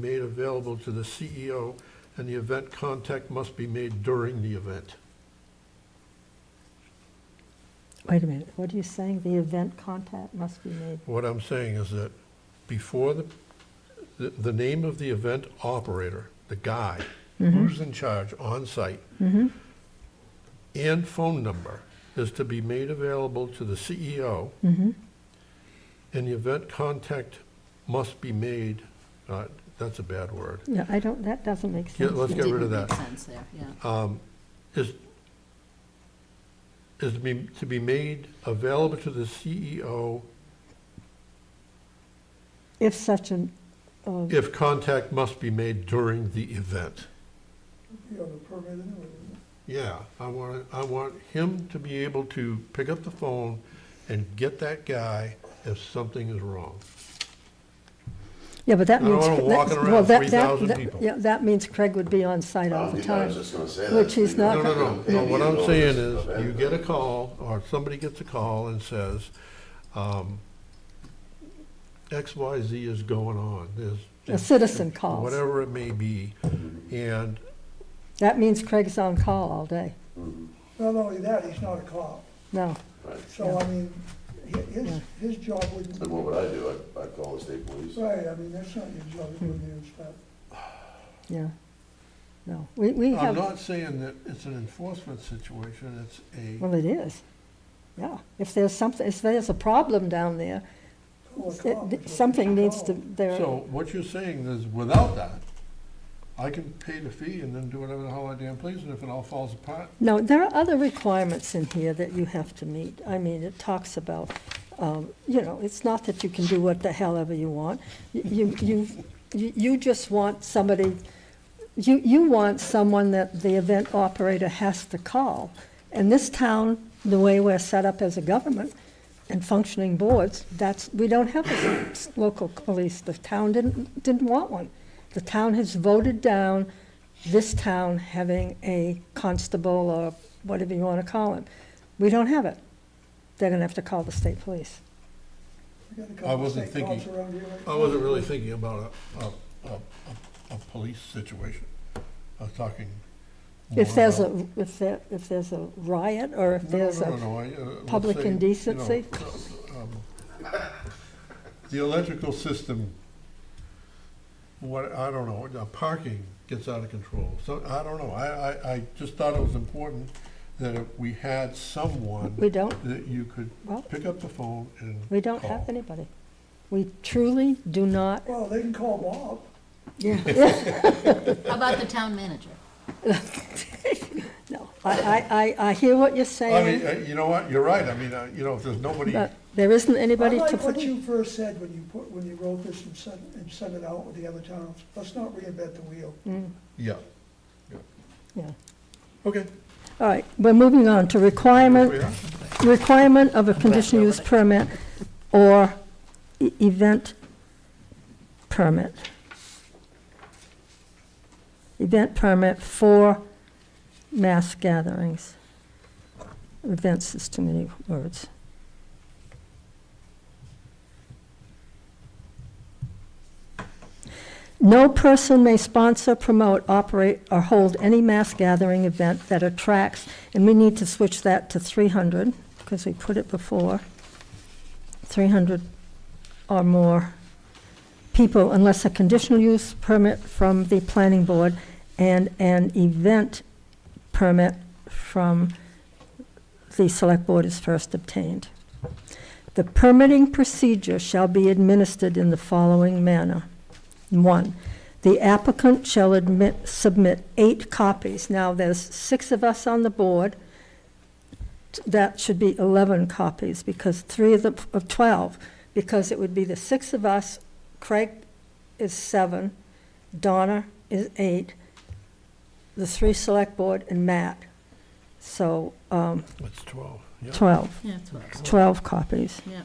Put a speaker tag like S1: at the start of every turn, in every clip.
S1: made available to the CEO, and the event contact must be made during the event.
S2: Wait a minute, what are you saying? The event contact must be made?
S1: What I'm saying is that before the, the, the name of the event operator, the guy who's in charge on site, and phone number is to be made available to the CEO, and the event contact must be made, uh, that's a bad word.
S2: No, I don't, that doesn't make
S1: Yeah,
S2: sense.
S1: let's get rid of that. Uh,
S3: Didn't make sense there, yeah.
S1: is, is to be, to be made available to the E CEO
S2: If such an, uh,
S1: if contact must be made during the event.
S4: You have a permit anyway.
S1: Yeah, I want, I want him to be able to pick up the phone and get that guy if something is wrong.
S2: yeah, but that
S1: I don't
S2: means.
S1: wanna
S2: that-
S1: walking around
S2: well, that- that-
S1: 3,000
S2: that-
S1: people.
S2: Yeah, that means Craig would be on site all the
S5: I
S2: time.
S5: was just gonna say that.
S2: Which he's not-
S1: No, no, no, no, what I'm saying is, you get a call, or somebody gets a call and says, um, X, Y, Z is going on, there's.
S2: A citizen calls.
S1: Whatever it may be, and
S2: That means Craig's on call all day.
S4: Not only that, he's not a cop,
S2: No,
S4: so I mean, hi- his, his job wouldn't,
S5: And what would I do? I'd, I'd call the state police.
S4: right, I mean, that's not your
S2: Hmm.
S4: job, you wouldn't inspect.
S2: yeah, no. We, we
S1: I'm
S2: have,
S1: not saying that it's an enforcement situation, it's a,
S2: well, it is. Yeah, if there's something, if there's a problem down there,
S4: Call
S2: it-
S4: a cop,
S2: th-
S4: that's what
S2: something
S4: you
S2: needs to,
S4: call.
S2: there,
S1: so what you're saying is, without that, I can pay the fee and then do whatever the hell I damn please, and if it all falls apart,
S2: No, there are other requirements in here that you have to meet. I mean, it talks about, um, you know, it's not that you can do what the hell ever you want. You, you, you you just want somebody, you, you want someone that the event operator has to call. And this town, the way we're set up as a government and functioning boards, that's, we don't have a s- local police. The town didn't, didn't want one. The town has voted down this town having a constable or whatever you want to call him. We don't have it. They're going to have to call the state police.
S4: We got a
S1: I
S4: couple of
S1: wasn't
S4: state cops
S1: thinking-
S4: around here right
S1: I
S4: now.
S1: wasn't really thinking about a, a, a, a, a police situation. I was talking. more
S2: If there's
S1: about-
S2: a, if there, if there's a riot or if
S1: No, no,
S2: there's
S1: no,
S2: a,
S1: no, I, uh, let's
S2: public
S1: say, you know,
S2: indecency?
S1: um, The electrical system, what, I don't know, the parking gets out of control, so, I don't know, I, I, I just thought it was important that if we had someone
S2: we don't,
S1: that you could
S2: well,
S1: pick up the phone and
S2: we don't have
S1: call.
S2: anybody. We truly do not,
S4: Well, they can call Bob.
S3: How about the town manager?
S2: no. I, I, I, I hear what
S1: I mean,
S2: you're saying,
S1: uh, you know what, you're right, I mean, uh, you know, if there's nobody.
S2: but there isn't
S4: I
S2: anybody to
S4: like
S2: put
S4: what
S2: in.
S4: you first said when you put, when you wrote this and sent, and sent it out with the other towns. Let's not reinvent the wheel.
S1: Yeah.
S2: Mm, Yeah.
S1: Okay.
S2: All right, we're moving on to
S1: We
S2: requirement,
S1: are.
S2: requirement of a conditional use permit or e- event permit. Event permit for mass gatherings. Events is too many words. No person may sponsor, promote, operate, or hold any mass gathering event that attracts, and we need to switch that to three hundred, because we put it before, three hundred or more people unless a conditional use permit from the planning board and an event permit from the select board is first obtained. The permitting procedure shall be administered in the following manner. One, the applicant shall admit, submit eight copies. Now, there's six of us on the board. That should be 11 copies, because three of the, of 12, because it would be the six of us, Craig is seven, Donna is eight, the three select board, and Matt. So, um,
S1: It's twelve, yeah.
S2: 12,
S3: Yeah, that's what I was-
S2: 12 copies.
S3: yeah.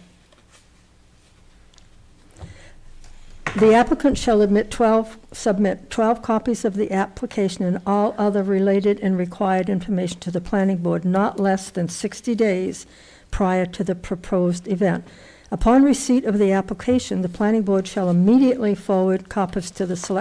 S2: The applicant shall admit 12, submit 12 copies of the application and all other related and required information to the planning board not less than 60 days prior to the proposed event. Upon receipt of the application, the planning board shall immediately forward copies to the select